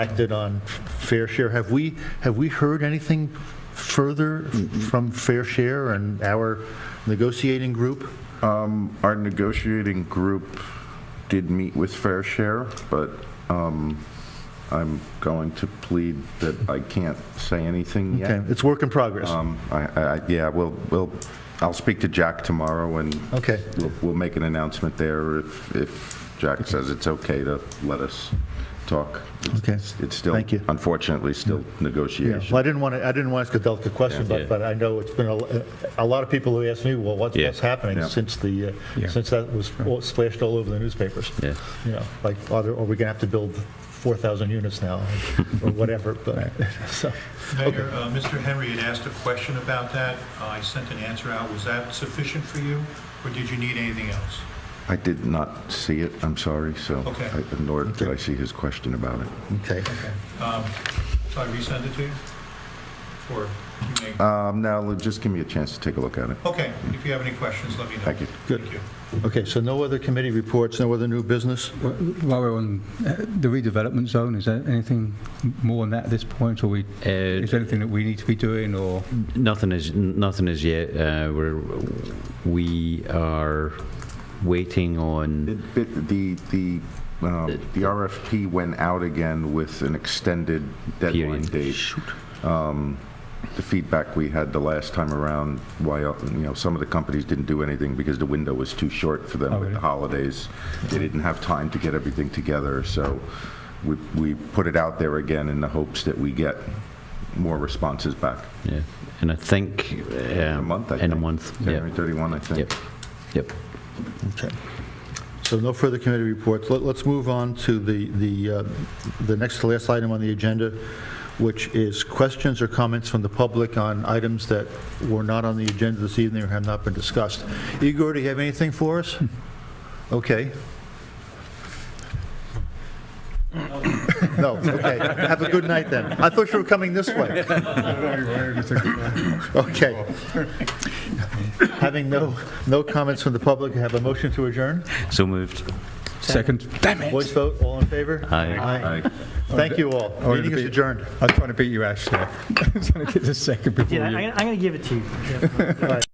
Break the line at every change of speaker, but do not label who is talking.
acted on Fair Share. Have we, have we heard anything further from Fair Share and our negotiating group?
Um, Our negotiating group did meet with Fair Share, but um, I'm going to plead that I can't say anything
Okay,
yet.
It's work in progress.
Um, I- I- I- Yeah, we'll, we'll, I'll speak to Jack tomorrow, and
Okay.
we'll- we'll make an announcement there if, if Jack says it's okay to let us talk. It's-
Okay.
it's- It's still,
Thank you.
unfortunately, still
Yeah. Well,
negotiation.
I didn't want to, I didn't want to ask a delicate question, but, but I know it's been, a a lot of people who ask me, well, what's,
Yeah.
what's happening
Yeah.
since the, uh,
Yeah.
since that was all- splashed all over the newspapers?
Yeah.
You know, like, are there- are we going to have to build 4,000 units now, or whatever, but, so,
Mayor, uh, Mr. Henry had asked a question about that. Uh, I sent an answer out. Was that sufficient for you, or did you need anything else?
I did not see it, I'm sorry, so,
Okay.
I- nor did
Okay.
I see his question about it.
okay.
So I resend it to you? Or you may,
Um, Now, just give me a chance to take a look at it.
okay, if you have any questions, let me know.
Thank you.
Good.
Thank you.
Okay, so no other committee reports, no other new business?
While we're on uh, the redevelopment zone, is there anything more on that at this point, or we,
Uh,
is there anything that we need to be doing, or?
Nothing is n- nothing is yet. Uh, we're we are waiting on.
It- it- The, the, um, the RFP went out again with an extended deadline
Period.
date. Um, The feedback we had the last time around, why, uh, you know, some of the companies didn't do anything because the window was too short for them
Oh,
with the
really?
holidays. They didn't have time to get everything together, so we, we put it out there again in the hopes that we get more responses back.
Yeah, and I think uh,
In a month, I think.
In a month.
January
Yep.
31, I think.
Yep. Yep.
Okay. So no further committee reports. Let- Let's move on to the, the, uh, the next to last item on the agenda, which is questions or comments from the public on items that were not on the agenda this evening or have not been discussed. Igor, do you have anything for us? Okay. No, okay. Have a good night then. I thought you were coming this way. Okay. Having no, no comments from the public, have a motion to adjourn?
So moved.
Second, damn it!
Voice vote, all in favor?
Aye.
Aye.
Aye.
Thank you all.
Oh, it'll
Meeting is
be-
adjourned.
I was trying to beat you, Ash, there. I was trying to get the second before
Yeah,
you.
I'm going to give it to you. Yeah.